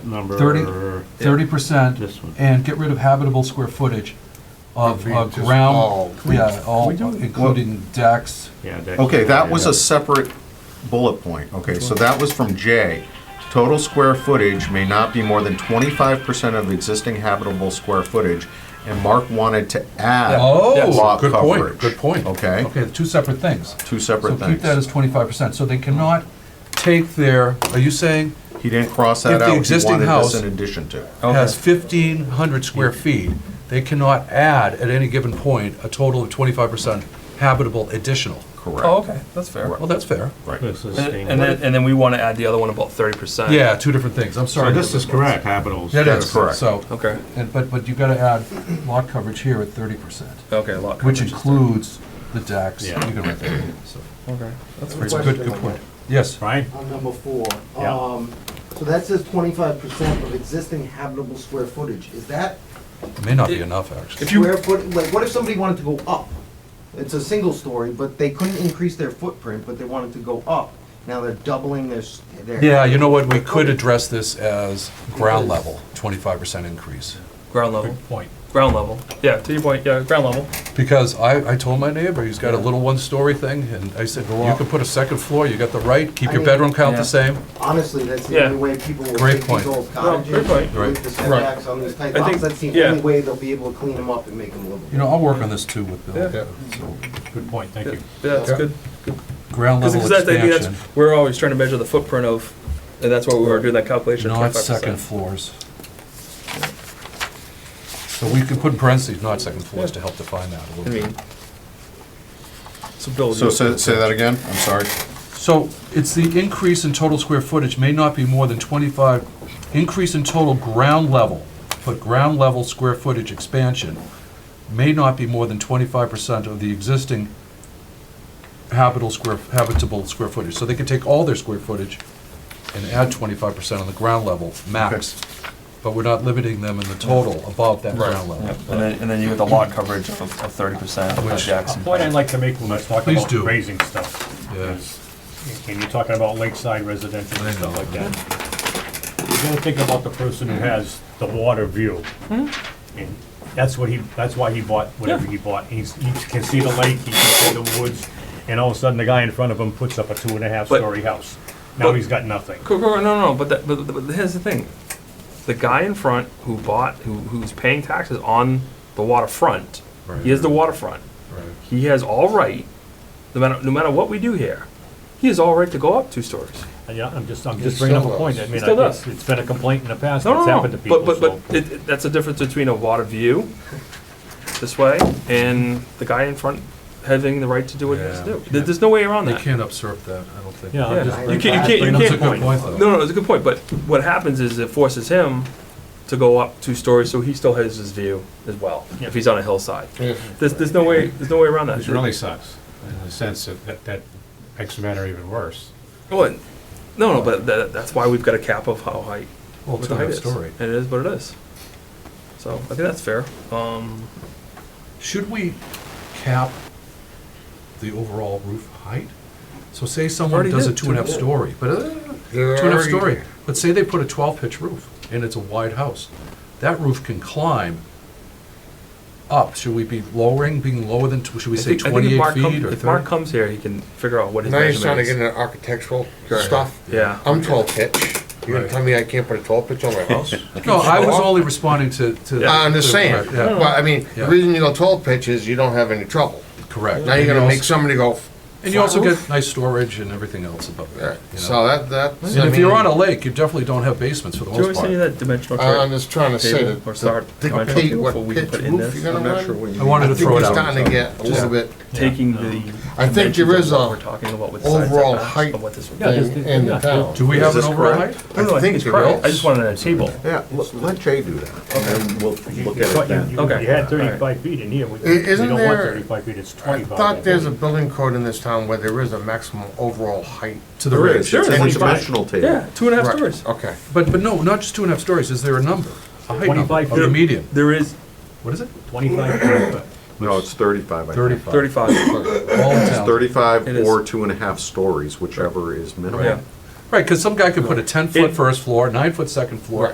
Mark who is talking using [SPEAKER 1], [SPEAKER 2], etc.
[SPEAKER 1] number.
[SPEAKER 2] Thirty, thirty percent,
[SPEAKER 1] This one.
[SPEAKER 2] and get rid of habitable square footage of
[SPEAKER 3] Maybe
[SPEAKER 2] uh,
[SPEAKER 3] just all.
[SPEAKER 2] ground, yeah, all,
[SPEAKER 4] we do-
[SPEAKER 2] including decks.
[SPEAKER 1] Yeah, that-
[SPEAKER 3] Okay, that was a separate bullet point. Okay, so that was from J. Total square footage may not be more than twenty-five percent of existing habitable square footage, and Mark wanted to add
[SPEAKER 2] Oh,
[SPEAKER 3] lot
[SPEAKER 4] good point,
[SPEAKER 3] coverage.
[SPEAKER 4] good point.
[SPEAKER 3] Okay,
[SPEAKER 2] Okay, two separate things.
[SPEAKER 3] two
[SPEAKER 2] So
[SPEAKER 3] separate
[SPEAKER 2] keep that
[SPEAKER 3] things.
[SPEAKER 2] as twenty-five percent, so they cannot take their, are you saying,
[SPEAKER 3] He didn't cross that
[SPEAKER 2] If the
[SPEAKER 3] out. He
[SPEAKER 2] existing
[SPEAKER 3] wanted
[SPEAKER 2] house-
[SPEAKER 3] this in addition to.
[SPEAKER 2] has fifteen hundred square feet, they cannot add at any given point a total of twenty-five percent habitable additional?
[SPEAKER 5] Oh,
[SPEAKER 3] Correct,
[SPEAKER 5] okay, that's fair.
[SPEAKER 3] Right.
[SPEAKER 2] Well, that's fair.
[SPEAKER 3] right.
[SPEAKER 1] This is
[SPEAKER 5] And
[SPEAKER 1] same.
[SPEAKER 5] and then, and then we want to add the other one about 30%.
[SPEAKER 2] Yeah, two different things, I'm sorry.
[SPEAKER 1] So this is correct, capitals.
[SPEAKER 2] That
[SPEAKER 3] That's
[SPEAKER 2] is,
[SPEAKER 3] correct.
[SPEAKER 2] so,
[SPEAKER 5] Okay,
[SPEAKER 2] and, but, but you gotta add lot coverage here at thirty percent,
[SPEAKER 5] okay, lot
[SPEAKER 2] which
[SPEAKER 5] coverage is
[SPEAKER 2] includes the decks.
[SPEAKER 1] Yeah.
[SPEAKER 2] You can write that in, so.
[SPEAKER 5] there. Okay, that's
[SPEAKER 2] It's
[SPEAKER 5] pretty
[SPEAKER 2] a good, good point. Yes.
[SPEAKER 1] Right?
[SPEAKER 6] on number four.
[SPEAKER 1] Yeah.
[SPEAKER 6] Um, So that says twenty-five percent of existing habitable square footage. Is that
[SPEAKER 2] It May not be enough, actually.
[SPEAKER 5] If you-
[SPEAKER 6] square foot, like, what if somebody wanted to go up? It's a single story, but they couldn't increase their footprint, but they wanted to go up. Now they're doubling their, s- their.
[SPEAKER 2] Yeah, you know what, we could address this as ground level, twenty-five percent increase.
[SPEAKER 5] ground level.
[SPEAKER 2] Point.
[SPEAKER 5] Ground level. Yeah, to your point, yeah, ground level.
[SPEAKER 2] Because I, I told my neighbor, he's got a little one-story thing, and I said, you can put a second floor, you got the right, keep
[SPEAKER 6] I
[SPEAKER 2] your
[SPEAKER 6] mean-
[SPEAKER 2] bedroom count
[SPEAKER 5] Yeah.
[SPEAKER 2] the same.
[SPEAKER 6] Honestly, that's the
[SPEAKER 5] Yeah.
[SPEAKER 6] only way people will
[SPEAKER 2] Great
[SPEAKER 6] take these
[SPEAKER 2] point.
[SPEAKER 6] old
[SPEAKER 5] No, great
[SPEAKER 6] cottages
[SPEAKER 5] point.
[SPEAKER 2] Right.
[SPEAKER 6] with the setbacks on these type
[SPEAKER 5] I think-
[SPEAKER 6] lots. That's the
[SPEAKER 5] yeah.
[SPEAKER 6] only way they'll be able to clean them up and make them livable.
[SPEAKER 2] You know, I'll work on this too with
[SPEAKER 5] Yeah.
[SPEAKER 2] Bill.
[SPEAKER 1] Good point, thank
[SPEAKER 5] Yeah,
[SPEAKER 1] you.
[SPEAKER 5] that's
[SPEAKER 2] Yeah.
[SPEAKER 5] good.
[SPEAKER 2] Ground
[SPEAKER 5] Because
[SPEAKER 2] level
[SPEAKER 5] that's, I think
[SPEAKER 2] expansion,
[SPEAKER 5] that's, we're always trying to measure the footprint of, and that's why we were doing that calculation. of
[SPEAKER 2] not
[SPEAKER 5] 25%.
[SPEAKER 2] second floors. So we could put in parentheses, not second floors, to help define that a
[SPEAKER 5] I
[SPEAKER 2] little bit.
[SPEAKER 5] mean. So Bill,
[SPEAKER 3] So
[SPEAKER 5] you-
[SPEAKER 3] say, say that again, I'm sorry.
[SPEAKER 2] So it's the increase in total square footage may not be more than 25, increase in total ground level, but ground level square footage expansion may not be more than 25% of the existing habitable square, habitable square footage. So they could take all their square footage and add 25% on the ground level, max. But we're not limiting them in the total above that ground
[SPEAKER 5] Yep,
[SPEAKER 2] level.
[SPEAKER 5] And then, and then you get the lot coverage of of 30% of
[SPEAKER 2] Which-
[SPEAKER 5] Jackson.
[SPEAKER 4] Point I'd like to make when I talk
[SPEAKER 2] Please
[SPEAKER 4] about
[SPEAKER 2] do.
[SPEAKER 4] raising stuff.
[SPEAKER 2] Yeah.
[SPEAKER 4] is, And you're talking about lakeside residential and stuff like that. You gotta think about the person who has the water view.
[SPEAKER 2] Hmm?
[SPEAKER 4] And that's what he, that's why he bought whatever he bought. He's, he can see the lake, he can see the woods, and all of a sudden the guy in front of him puts up a two and a half
[SPEAKER 5] But-
[SPEAKER 4] story house. Now
[SPEAKER 5] but-
[SPEAKER 4] he's got nothing.
[SPEAKER 5] Cool, cool, no, no, but, that, but, but here's the thing. The guy in front who bought, who, who's paying taxes on the waterfront,
[SPEAKER 2] Right.
[SPEAKER 5] he has the waterfront.
[SPEAKER 2] Right.
[SPEAKER 5] He has all right, no matter, no matter what we do here, he has all right to go up two stories.
[SPEAKER 4] Uh, Yeah, I'm just, I'm just bringing up a point. I mean,
[SPEAKER 5] Still
[SPEAKER 4] I-
[SPEAKER 5] does.
[SPEAKER 4] it's, it's been a complaint in the past,
[SPEAKER 5] No,
[SPEAKER 4] it's
[SPEAKER 5] no,
[SPEAKER 4] happened
[SPEAKER 5] no,
[SPEAKER 4] to
[SPEAKER 5] but,
[SPEAKER 4] people, so.
[SPEAKER 5] but, but it, it- that's the difference between a water view this way and the guy in front having the right to do what he has to
[SPEAKER 2] Yeah.
[SPEAKER 5] do. There- There's no way around
[SPEAKER 2] They
[SPEAKER 5] that.
[SPEAKER 2] can't usurp that, I don't think.
[SPEAKER 4] Yeah, I'm just
[SPEAKER 5] Yeah.
[SPEAKER 4] bringing
[SPEAKER 5] You can't-
[SPEAKER 4] up-
[SPEAKER 5] you
[SPEAKER 4] bringing up
[SPEAKER 5] can't-
[SPEAKER 4] the point.
[SPEAKER 5] No, no, it's a good point, but what happens is it forces him to go up two stories, so he still has his view as well, if he's on a hillside. There's, there's no way, there's no way around
[SPEAKER 7] Which
[SPEAKER 5] that.
[SPEAKER 7] really sucks, in the sense that- that, that makes the matter even worse.
[SPEAKER 5] Well, and- No, no, but that, that's why we've got a cap of how high,
[SPEAKER 2] Well,
[SPEAKER 5] what
[SPEAKER 2] it's
[SPEAKER 5] the height
[SPEAKER 2] another
[SPEAKER 5] is.
[SPEAKER 2] story.
[SPEAKER 5] And it is what it is. So, I think that's fair. Um,
[SPEAKER 2] Should we cap the overall roof height? So say someone
[SPEAKER 5] Already
[SPEAKER 2] does a
[SPEAKER 5] did,
[SPEAKER 2] two and a half
[SPEAKER 5] two.
[SPEAKER 2] story, but, uh, two and a half story, but say they put a twelve pitch roof and it's a wide house. That roof can climb up. Should we be lowering, being lower than, tw- should we
[SPEAKER 5] I
[SPEAKER 2] say
[SPEAKER 5] think- I think if
[SPEAKER 2] twenty-eight
[SPEAKER 5] Mark come-
[SPEAKER 2] feet or
[SPEAKER 5] If Mark
[SPEAKER 2] thirty?
[SPEAKER 5] comes here, he can figure out what his
[SPEAKER 8] Now you're starting
[SPEAKER 5] measurement
[SPEAKER 8] to get
[SPEAKER 5] is.
[SPEAKER 8] into architectural stuff.
[SPEAKER 5] Yeah.
[SPEAKER 8] I'm twelve pitch. You're gonna
[SPEAKER 2] Right.
[SPEAKER 8] tell me I can't put a twelve pitch on my house?
[SPEAKER 2] No, I was only responding to, to.
[SPEAKER 8] I'm just
[SPEAKER 2] to-
[SPEAKER 8] saying,
[SPEAKER 2] yeah,
[SPEAKER 8] well, I mean,
[SPEAKER 2] Yeah.
[SPEAKER 8] the reason you go twelve pitch is you don't have any trouble.
[SPEAKER 2] Correct.
[SPEAKER 8] Now you're
[SPEAKER 2] And you
[SPEAKER 8] gonna
[SPEAKER 2] also-
[SPEAKER 8] make somebody go,
[SPEAKER 2] And you also
[SPEAKER 8] flat
[SPEAKER 2] get nice storage and everything else above
[SPEAKER 8] "Eh."
[SPEAKER 2] that. you know?
[SPEAKER 8] so that, that's. I
[SPEAKER 2] And if you're
[SPEAKER 8] mean,
[SPEAKER 2] on a lake, you definitely don't have basements for the
[SPEAKER 5] Do you want
[SPEAKER 2] most
[SPEAKER 5] me to send you
[SPEAKER 2] part.
[SPEAKER 5] that dimensional
[SPEAKER 8] I- I'm
[SPEAKER 5] chart
[SPEAKER 8] just trying to say
[SPEAKER 5] table
[SPEAKER 8] that.
[SPEAKER 5] or start
[SPEAKER 8] Dictate
[SPEAKER 5] dimensional
[SPEAKER 8] what
[SPEAKER 5] what we can
[SPEAKER 8] pitch
[SPEAKER 5] put in
[SPEAKER 8] roof
[SPEAKER 5] this?
[SPEAKER 8] you're gonna run.
[SPEAKER 2] I wanted to
[SPEAKER 8] I think
[SPEAKER 2] throw it
[SPEAKER 8] you're
[SPEAKER 2] out.
[SPEAKER 8] starting to get a little bit
[SPEAKER 5] taking the.
[SPEAKER 8] I think there
[SPEAKER 5] dimensions
[SPEAKER 8] is
[SPEAKER 5] of what
[SPEAKER 8] a
[SPEAKER 5] We're talking about with the side
[SPEAKER 8] overall
[SPEAKER 5] setbacks
[SPEAKER 8] height
[SPEAKER 5] of what this would be.
[SPEAKER 4] Yeah, just-
[SPEAKER 8] thing in
[SPEAKER 4] yeah,
[SPEAKER 8] the town.
[SPEAKER 2] Do we
[SPEAKER 3] Is
[SPEAKER 2] have an
[SPEAKER 3] this
[SPEAKER 2] overall height?
[SPEAKER 3] correct?
[SPEAKER 5] No, no, I think it's
[SPEAKER 3] there
[SPEAKER 5] correct. I
[SPEAKER 3] is.
[SPEAKER 5] just wanted a table.
[SPEAKER 3] Yeah, l- let Jay do that, and then we'll look at it
[SPEAKER 4] You
[SPEAKER 3] then.
[SPEAKER 4] you
[SPEAKER 5] Okay.
[SPEAKER 4] had
[SPEAKER 5] Alright.
[SPEAKER 4] thirty-five feet in here, we we
[SPEAKER 8] isn't
[SPEAKER 4] don't want
[SPEAKER 8] there-
[SPEAKER 4] thirty-five feet, it's
[SPEAKER 8] I
[SPEAKER 4] twenty-five.
[SPEAKER 8] thought there's a building code in this town where there is a maximum overall height.
[SPEAKER 2] To the
[SPEAKER 3] There
[SPEAKER 2] right.
[SPEAKER 3] is, it's in the dimensional table.
[SPEAKER 5] Yeah, two and a half
[SPEAKER 8] Right,
[SPEAKER 5] stories.
[SPEAKER 8] Okay.
[SPEAKER 2] But, but no, not just two and a half stories, is there a number? A height number
[SPEAKER 4] 25
[SPEAKER 2] of the
[SPEAKER 4] feet.
[SPEAKER 2] median?
[SPEAKER 5] There is
[SPEAKER 2] What is it?
[SPEAKER 4] Twenty-five feet.
[SPEAKER 3] No, it's thirty-five, I think.
[SPEAKER 2] Thirty-five.
[SPEAKER 5] thirty-five.
[SPEAKER 2] All in town.
[SPEAKER 3] Thirty-five
[SPEAKER 5] It is.
[SPEAKER 3] or two and a half stories, whichever is
[SPEAKER 5] Yeah.
[SPEAKER 3] minimum.
[SPEAKER 2] Right, because some guy could put a
[SPEAKER 5] It-
[SPEAKER 2] ten-foot first floor, nine-foot second floor,